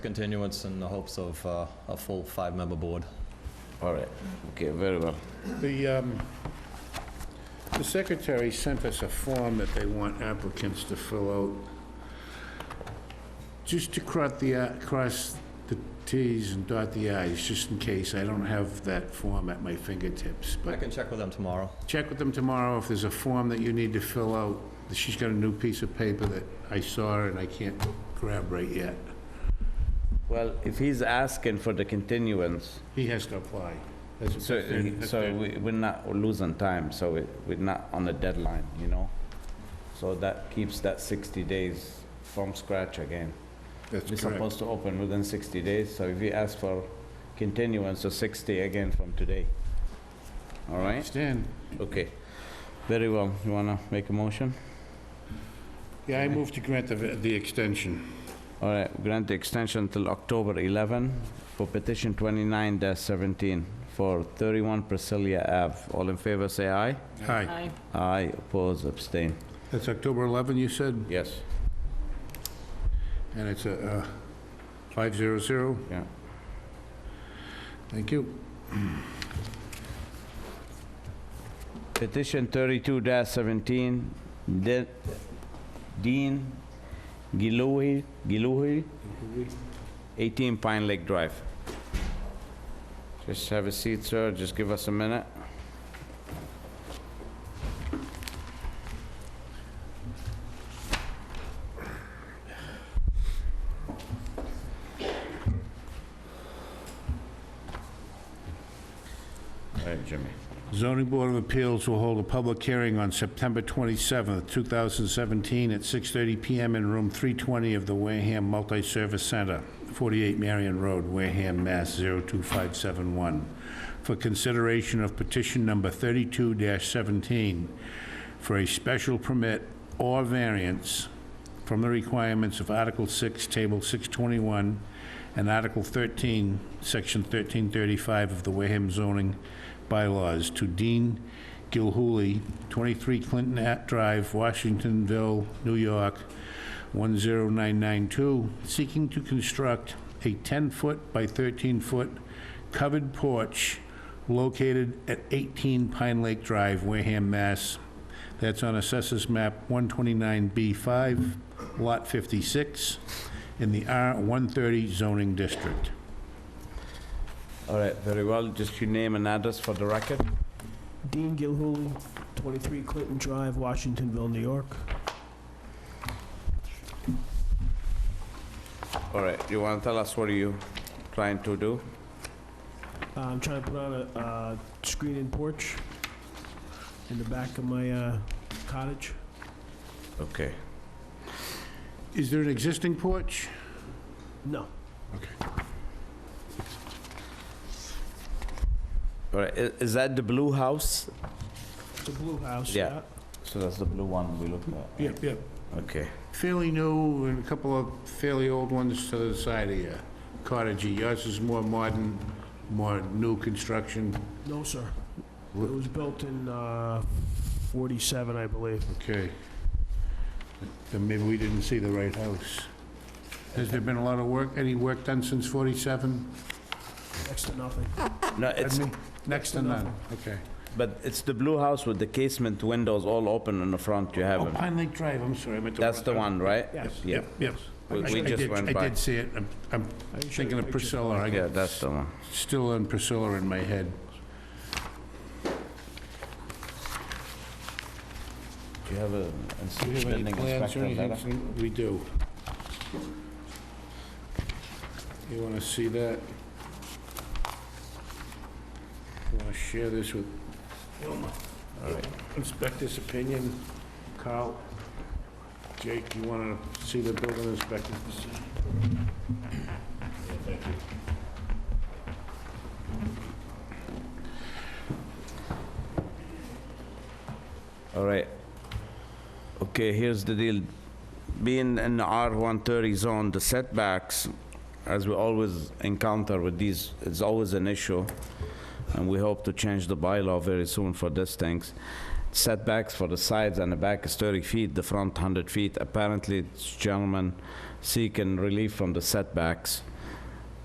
continuance in the hopes of uh, a full five-member board. All right, okay, very well. The, um, the secretary sent us a form that they want applicants to fill out. Just to cross the, i- cross the Ts and dot the Is, just in case. I don't have that form at my fingertips. I But can check with them tomorrow. check with them tomorrow if there's a form that you need to fill out. She's got a new piece of paper that I saw and I can't grab right yet. Well, if he's asking for the continuance, He has to apply. That's a so, thirty- a so thirty- we- we're not losing time, so we- we're not on a deadline, you know? So that keeps that 60 days from scratch again. We're That's correct. supposed to open within 60 days, so if he asks for continuance, so 60 again from today. All right? Stan? Okay. Very well. You wanna make a motion? Yeah, I move to grant the, the extension. All right, grant the extension till October 11 for petition 29-17 for 31 Priscilla Ave. All in favor, say aye. Hi. Aye. Aye, oppose, abstain. That's October 11, you said? Yes. And it's a uh, 500? Yeah. Thank you. Petition 32-17, De- Dean Gilouhi, Gilouhi, 18 Pine Lake Drive. Just have a seat, sir, just give us a minute. All right, Jimmy. Zoning Board of Appeals will hold a public hearing on September 27th, 2017, at 6:30 PM in Room 320 of the Wareham Multi-Service Center, 48 Marion Road, Wareham, Mass. 02571, for consideration of petition number 32-17 for a special permit or variance from the requirements of Article 6, Table 621, and Article 13, Section 1335 of the Wareham zoning bylaws to Dean Gilhooly, 23 Clinton Ave Drive, Washingtonville, New York, 10992, seeking to construct a 10-foot by 13-foot covered porch located at 18 Pine Lake Drive, Wareham, Mass. That's on Assessors Map 129B5, Lot 56, in the R130 zoning district. All right, very well. Just your name and address for the record. Dean Gilhooly, 23 Clinton Drive, Washingtonville, New York. All right, you want to tell us what are you trying to do? Uh, I'm trying to put on a uh, screened-in porch in the back of my uh, cottage. Okay. Is there an existing porch? No, All right, i- is that the blue house? it's a blue house. Yeah. So that's the blue one we looked at. Yep, yep. Okay. Fairly new and a couple of fairly old ones to the side of you. Cottagey, yours is more modern, more new construction. No, sir. It was built in uh, 47, I believe. Okay. Then maybe we didn't see the right house. Has there been a lot of work, any work done since 47? Next to nothing. No, it's, Pardon me? Next to none, okay. but it's the blue house with the casement windows all open in the front you Oh, haven't. Pine Lake Drive, I'm sorry, I meant to... That's the one, right? Yes. Yeah, Yep, yep. We- I- we I just did- went I by. did see it. I'm- I'm I can show you thinking a of picture. Priscilla. I yeah, got that's the one. still on Priscilla in my head. Do you have a Do you have any building plans or inspector letter? anything? We do. You want to see that? Want to share this with Wilma? Inspector's opinion, Carl? Jake, you want to see the building inspector's decision? All right. Okay, here's the deal. Being in the R130 zone, the setbacks, as we always encounter with these, it's always an issue. And we hope to change the bylaw very soon for these things. Setbacks for the sides and the back is 30 feet, the front 100 feet. Apparently, this gentleman seeking relief from the setbacks.